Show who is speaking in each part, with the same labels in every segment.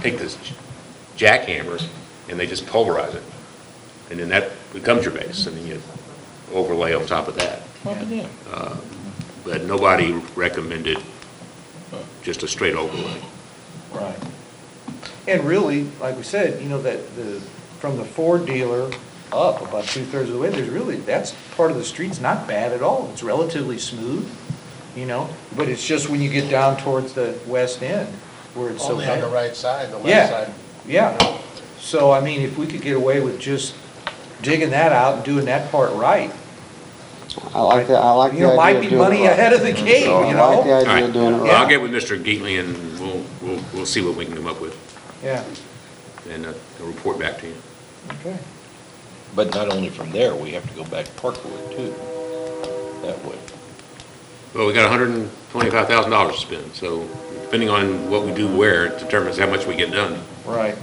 Speaker 1: take this jackhammer and they just pulverize it. And then that becomes your base, and then you overlay on top of that. Uh, But nobody recommended just a straight overlay.
Speaker 2: Right. And really, like we said, you know, that the, from the Ford dealer up about two-thirds of the way, there's really, that's part of the street's not bad at all. It's relatively smooth, you know, but it's just when you get down towards the west end where it's so
Speaker 3: Only on
Speaker 2: bad.
Speaker 3: the right side, the left
Speaker 2: Yeah,
Speaker 3: side.
Speaker 2: yeah. So, I mean, if we could get away with just digging that out and doing that part right,
Speaker 4: I like that, I like the
Speaker 2: You know,
Speaker 4: idea
Speaker 2: might
Speaker 4: of
Speaker 2: be
Speaker 4: doing it
Speaker 2: money
Speaker 4: right.
Speaker 2: ahead of the game,
Speaker 4: So
Speaker 2: you
Speaker 4: I
Speaker 2: know?
Speaker 4: like the
Speaker 1: All
Speaker 4: idea
Speaker 1: right,
Speaker 4: of doing it
Speaker 1: well, I'll
Speaker 4: right.
Speaker 1: get with Mr. Geatley and we'll, we'll, we'll see what we can come up with
Speaker 2: yeah,
Speaker 1: and uh, I'll report back to you.
Speaker 2: okay.
Speaker 5: But not only from there, we have to go back Parkwood too, that way.
Speaker 1: Well, we got hundred and twenty-five thousand dollars to spend, so depending on what we do where it determines how much we get done.
Speaker 2: Right.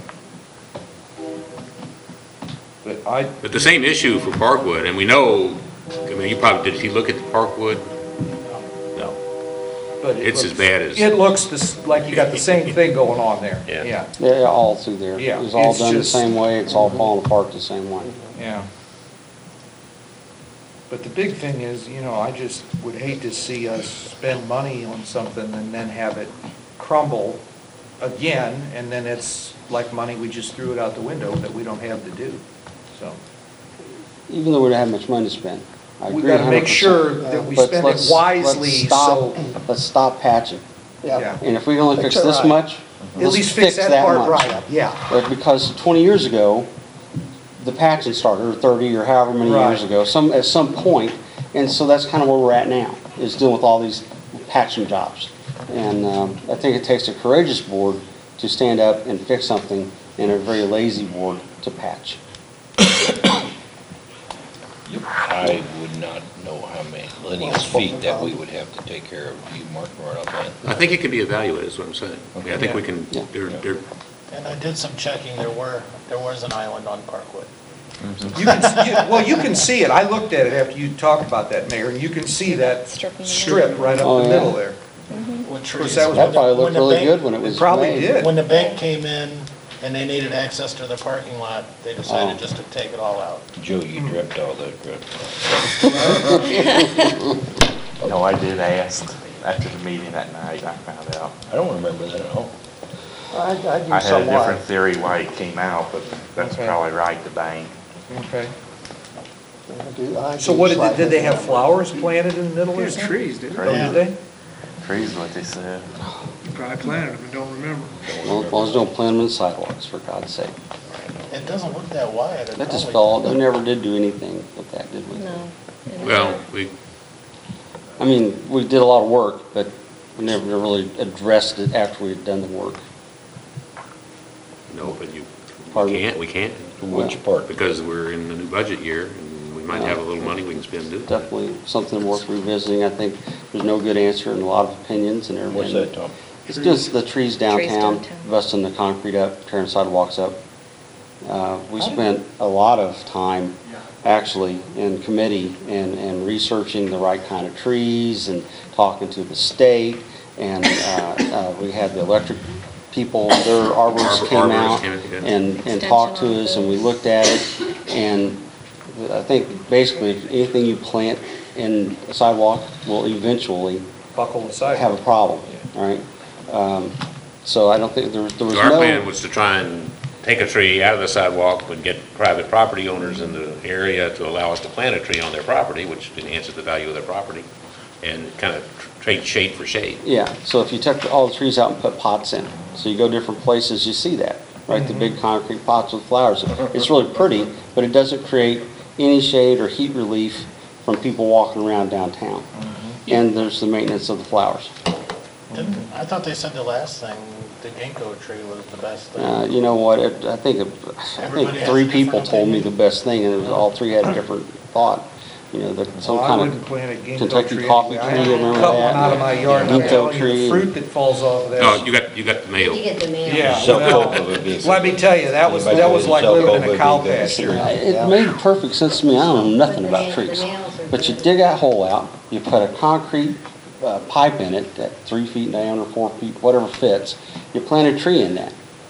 Speaker 2: But I,
Speaker 1: But the same issue for Parkwood, and we know, I mean, you probably, did you look at the Parkwood? No.
Speaker 2: but it
Speaker 1: It's as
Speaker 2: looks-
Speaker 1: bad as-
Speaker 2: It looks this- like you got the same thing going on there.
Speaker 1: Yeah.
Speaker 2: Yeah,
Speaker 4: Yeah, yeah, all through there.
Speaker 2: Yeah,
Speaker 4: It's all
Speaker 2: it's
Speaker 4: done the
Speaker 2: just-
Speaker 4: same way, it's all falling apart the same way.
Speaker 2: yeah. But the big thing is, you know, I just would hate to see us spend money on something and then have it crumble again, and then it's like money we just threw it out the window that we don't have to do, so.
Speaker 4: Even though we don't have much money to spend. I
Speaker 2: We
Speaker 4: agree
Speaker 2: gotta make
Speaker 4: 100%.
Speaker 2: sure that we
Speaker 4: But
Speaker 2: spend it
Speaker 4: let's- let's
Speaker 2: wisely,
Speaker 4: stop-
Speaker 2: so-
Speaker 4: Let's stop patching.
Speaker 2: Yeah.
Speaker 4: And if we can only
Speaker 3: Fix
Speaker 4: fix
Speaker 3: it
Speaker 4: this
Speaker 3: right.
Speaker 4: much,
Speaker 2: At
Speaker 4: let's
Speaker 2: least fix
Speaker 4: fix
Speaker 2: that
Speaker 4: that
Speaker 2: part
Speaker 4: much.
Speaker 2: right, yeah.
Speaker 4: But because 20 years ago, the patching started, or 30, or however many
Speaker 2: Right.
Speaker 4: years ago, some, at some point, and so that's kind of where we're at now, is dealing with all these patching jobs. And um, I think it takes a courageous board to stand up and fix something, and a very lazy board to patch.
Speaker 5: I would not know how many linear feet that we would have to take care of, you mark right up on.
Speaker 1: I think it can be evaluated, is what I'm saying. I mean, I think we can,
Speaker 4: Yeah.
Speaker 1: there, there,
Speaker 3: And I did some checking, there were, there was an island on Parkwood.
Speaker 2: You can, you- well, you can see it, I looked at it after you talked about that, Mayor, and you can see that
Speaker 6: Strip in the
Speaker 2: strip right
Speaker 4: Oh,
Speaker 2: up the
Speaker 4: yeah.
Speaker 2: middle there.
Speaker 3: With
Speaker 2: course,
Speaker 3: trees.
Speaker 2: that was-
Speaker 4: That probably
Speaker 3: When
Speaker 4: looked
Speaker 3: the
Speaker 4: really
Speaker 3: bank-
Speaker 4: good when it was
Speaker 2: probably
Speaker 4: made.
Speaker 2: did.
Speaker 3: When the bank came in and they needed access to their parking lot, they
Speaker 4: Oh.
Speaker 3: decided just to take it all out.
Speaker 5: Joe, you dripped all that drip.
Speaker 7: No, I did ask after the meeting that night, I found out.
Speaker 5: I don't remember that at all.
Speaker 4: I
Speaker 7: I had a different theory why it came out, but that's
Speaker 2: Okay.
Speaker 7: probably right, the bank.
Speaker 2: Okay.
Speaker 4: different.
Speaker 2: So what, did they- did they have flowers planted in the middle or something?
Speaker 8: trees, dude.
Speaker 2: Oh, did they?
Speaker 7: Trees what they said.
Speaker 8: Probably planted them and don't remember.
Speaker 4: As long as don't plant them in sidewalks, for God's sake.
Speaker 3: It doesn't look that wide. It
Speaker 4: That just
Speaker 3: probably-
Speaker 4: fell, they never did do anything with that, did we?
Speaker 6: No.
Speaker 1: well, we,
Speaker 4: I mean, we did a lot of work, but we never really addressed it after we had done the work.
Speaker 1: no, but you, we
Speaker 4: Pardon?
Speaker 1: can't, we can't.
Speaker 5: Which part?
Speaker 1: Because we're in the new budget year and we might have a little money we can spend doing that.
Speaker 4: Definitely something worth revisiting. I think there's no good answer and a lot of opinions and everything.
Speaker 5: What's that, Tom?
Speaker 4: It's just the trees downtown,
Speaker 6: downtown.
Speaker 4: busting the concrete up, tearing sidewalks up. Uh, We
Speaker 2: I didn't-
Speaker 4: spent a lot of time, actually, in committee and, and researching the right kind of trees and talking to the state. And uh, uh, we had the electric people, their arborists
Speaker 1: Arbor-
Speaker 4: came
Speaker 1: arborists
Speaker 4: out
Speaker 1: came in, yeah.
Speaker 4: and, and talked to us, and we looked at it. And I think basically, if anything you plant in a sidewalk will eventually
Speaker 2: Buckle the
Speaker 4: have
Speaker 2: sidewalk.
Speaker 4: a problem, all right? Um, So I don't think, there there was
Speaker 1: So our plan
Speaker 4: no,
Speaker 1: was to try and take a tree out of the sidewalk, but get private property owners in the area to allow us to plant a tree on their property, which enhances the value of their property, and kind of trade shade for shade.
Speaker 4: yeah, so if you took all the trees out and put pots in, so you go different places, you see that, right? The big concrete pots with flowers, it's really pretty, but it doesn't create any shade or heat relief from people walking around downtown. And there's the maintenance of the flowers.
Speaker 3: Didn't- I thought they said the last thing, the ginkgo tree was the best thing.
Speaker 4: Uh, You know what, it- I think, it- I think
Speaker 3: Everybody has
Speaker 4: three
Speaker 3: a different
Speaker 4: people told me
Speaker 3: opinion.
Speaker 4: the best thing, and it was all three had a different thought, you know, that some
Speaker 2: Well, I
Speaker 4: kind of.
Speaker 2: wouldn't plant a ginkgo
Speaker 4: Kentucky
Speaker 2: tree.
Speaker 4: coffee
Speaker 2: anyway.
Speaker 4: tree,
Speaker 2: I
Speaker 4: remember
Speaker 2: Cut one
Speaker 4: that?
Speaker 2: out of my yard, and I'm
Speaker 4: Ginkgo
Speaker 2: telling you, the
Speaker 4: tree.
Speaker 2: fruit that falls off of that.
Speaker 1: No, Oh, you got, you got the mail.
Speaker 9: You get the mail.
Speaker 2: Yeah,
Speaker 5: Sell coke
Speaker 2: well,
Speaker 5: over business.
Speaker 2: let me tell you, that was, that was like
Speaker 5: Sell
Speaker 2: living in a
Speaker 5: coke
Speaker 2: cow
Speaker 5: over business.
Speaker 2: pasture.
Speaker 4: It made perfect sense to me, I don't know nothing about trees. But you dig that hole out, you put a concrete uh, pipe in it, that three feet diameter, four feet, whatever fits, you plant a tree in that.